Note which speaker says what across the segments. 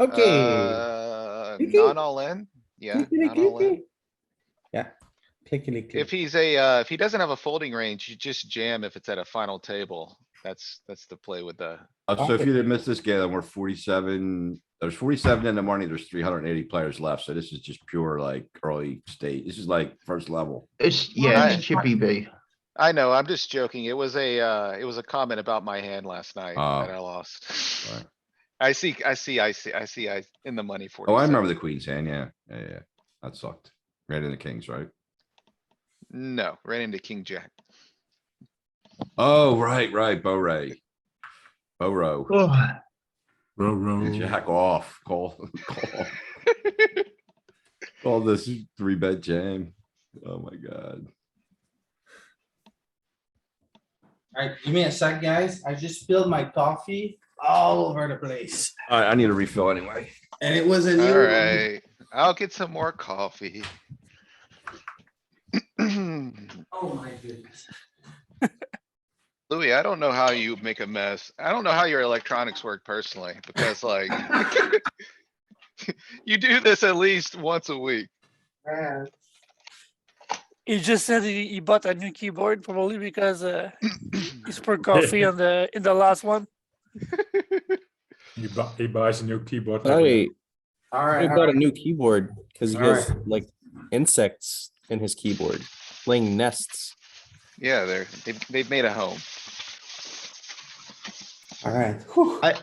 Speaker 1: Okay.
Speaker 2: Uh,
Speaker 1: Okay.
Speaker 2: not all in, yeah, not all in.
Speaker 1: clickety-clicky. Yeah, clickety
Speaker 2: If
Speaker 1: click.
Speaker 2: he's a, uh, if he doesn't have a folding range, you just jam if it's at a final table. That's, that's the play with the,
Speaker 3: Uh, so if
Speaker 1: Pocket
Speaker 3: you didn't miss this game, then we're forty-seven, there's forty-seven in the morning, there's three hundred and eighty players left, so this is just pure like early state, this is like first level.
Speaker 4: It's, yeah,
Speaker 2: I-
Speaker 4: it's chippy V.
Speaker 2: I know, I'm just joking. It was a, uh, it was a comment about my hand last night
Speaker 3: Oh.
Speaker 2: that I lost.
Speaker 3: Right.
Speaker 2: I see, I see, I see, I see, I, in the money for.
Speaker 3: Oh, I remember the queen's hand, yeah, yeah, yeah, that sucked. Right in the kings, right?
Speaker 2: No, ran into king jack.
Speaker 3: Oh, right, right, Bo Ray. Bo Row,
Speaker 4: Oh,
Speaker 5: Row,
Speaker 6: Oh.
Speaker 5: row.
Speaker 3: jack off, call, call. All this is three bet jam, oh my god.
Speaker 6: Alright, give me a sec, guys. I just spilled my coffee all over the place.
Speaker 3: Alright, I need a refill anyway.
Speaker 6: And it was a new one.
Speaker 2: Alright, I'll get some more coffee.
Speaker 6: Oh my goodness.
Speaker 2: Louis, I don't know how you make a mess. I don't know how your electronics work personally, because like. You do this at least once a week.
Speaker 7: He just said he, he bought a new keyboard probably because uh, he spilled coffee on the in the last one.
Speaker 5: He, bu- he buys a new keyboard. every
Speaker 8: Sorry, I
Speaker 6: Alright,
Speaker 8: got a new keyboard because he
Speaker 6: All
Speaker 8: has like insects in his keyboard, laying nests.
Speaker 2: Yeah, they're, they've, they've made a home.
Speaker 6: alright.
Speaker 4: I-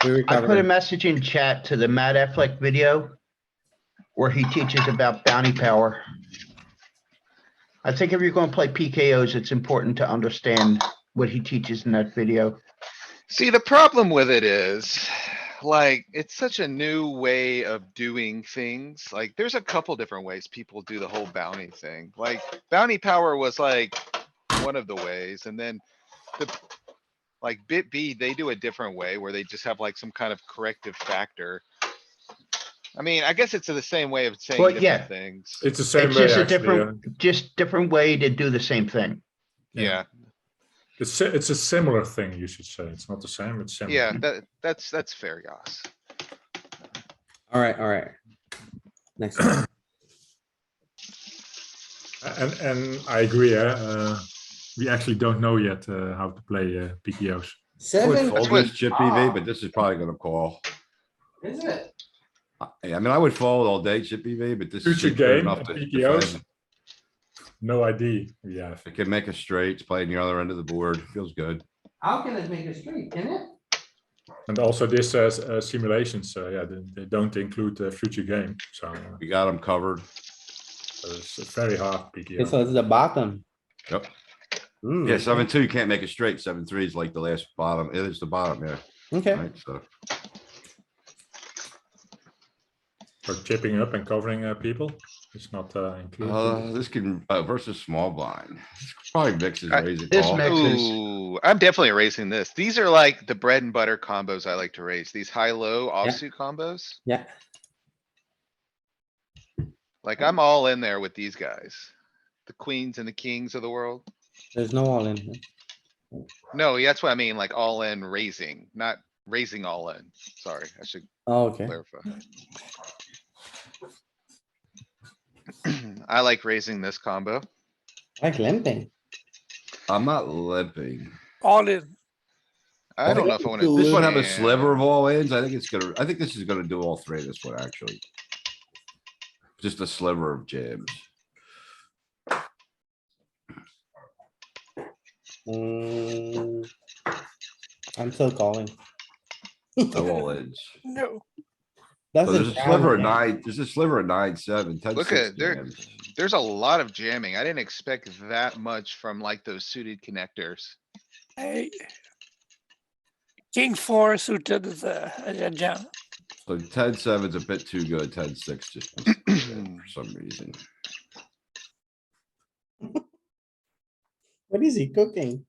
Speaker 4: I put a message in chat to the Matt Affleck video where he teaches about bounty power. I think if you're gonna play PKOs, it's important to understand what he teaches in that video.
Speaker 2: See, the problem with it is, like, it's such a new way of doing things. Like, there's a couple different ways people do the whole bounty thing. Like, bounty power was like one of the ways, and then the like bit B, they do a different way where they just have like some kind of corrective factor. I mean, I guess it's the same way of saying
Speaker 4: Well, yeah.
Speaker 2: different things.
Speaker 5: It's the same
Speaker 4: It's
Speaker 5: way,
Speaker 4: just a
Speaker 5: actually. uh, yeah.
Speaker 4: different, just different way to do the same thing.
Speaker 2: Yeah,
Speaker 5: It's, si- it's a similar thing, you should say. It's not the same, it's similar.
Speaker 2: yeah, that, that's, that's fair, Yoss.
Speaker 6: Alright, alright. Next. one.
Speaker 5: And, and I agree, eh, uh, we actually don't know yet, uh, how to play, uh, PKOs.
Speaker 3: Would
Speaker 6: Seven,
Speaker 3: fold
Speaker 2: what-
Speaker 3: this chip EV, but this is probably gonna call.
Speaker 6: is it?
Speaker 3: I I mean, I would fold all day chip EV, but this.
Speaker 5: Future
Speaker 3: is good
Speaker 5: game,
Speaker 3: enough to
Speaker 5: uh, PKOs.
Speaker 3: defend.
Speaker 5: No ID, we have.
Speaker 3: It can make a straight, it's playing the other end of the board, feels good.
Speaker 6: How can it make a street, can it?
Speaker 5: And also this says, uh, simulations, uh, yeah, they, they don't include, uh, future game, so, uh,
Speaker 3: We got them covered.
Speaker 5: so it's a very hard
Speaker 6: Okay, So
Speaker 5: PKO.
Speaker 6: it's the bottom. Mm.
Speaker 3: Yep.
Speaker 6: Ooh,
Speaker 3: Yeah, seven, two, you can't make it straight. Seven, three is like the last bottom. It is the bottom, yeah.
Speaker 6: Okay,
Speaker 3: Right, so
Speaker 5: So chipping up and covering, uh, people, it's not, uh, included.
Speaker 3: uh, this can uh, versus small blind. Probably mixes
Speaker 2: I-
Speaker 3: raising
Speaker 4: this
Speaker 3: call.
Speaker 4: mix- Texas.
Speaker 2: Ooh, I'm definitely raising this. These are like the bread and butter combos I like to raise, these high-low offsuit combos.
Speaker 6: yeah.
Speaker 2: Like I'm all in there with these guys. The queens and the kings of the world.
Speaker 6: There's no all in. here.
Speaker 2: No, that's what I mean, like all in raising, not raising all in. Sorry, I should
Speaker 6: Oh, Okay,
Speaker 2: clarify. I like raising this combo.
Speaker 6: like limping.
Speaker 3: I'm not limping.
Speaker 7: All in.
Speaker 2: I don't know if I wanna.
Speaker 3: This one have a
Speaker 2: jam.
Speaker 3: sliver of all ends. I think it's gonna, I think this is gonna do all three of this one, actually. Just a sliver of jams.
Speaker 6: Hmm. I'm still calling.
Speaker 3: No all ends.
Speaker 7: No.
Speaker 3: So there's a
Speaker 6: Doesn't
Speaker 3: sliver of
Speaker 6: sound right.
Speaker 3: nine, there's a sliver of nine, seven, ten,
Speaker 2: Look
Speaker 3: six
Speaker 2: at, there-
Speaker 3: jams.
Speaker 2: There's a lot of jamming. I didn't expect that much from like those suited connectors.
Speaker 7: Hey. King four suited is a, a- a jam.
Speaker 3: So ten, seven's a bit too good. Ten, six just was too good for some reason.
Speaker 6: What is he cooking?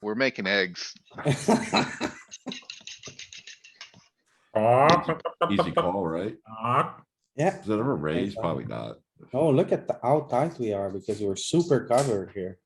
Speaker 2: We're making eggs.
Speaker 3: Easy call, right?
Speaker 6: Yeah,
Speaker 3: Is it ever raised? Probably not.
Speaker 6: oh, look at the- how tight we are because we're super covered here.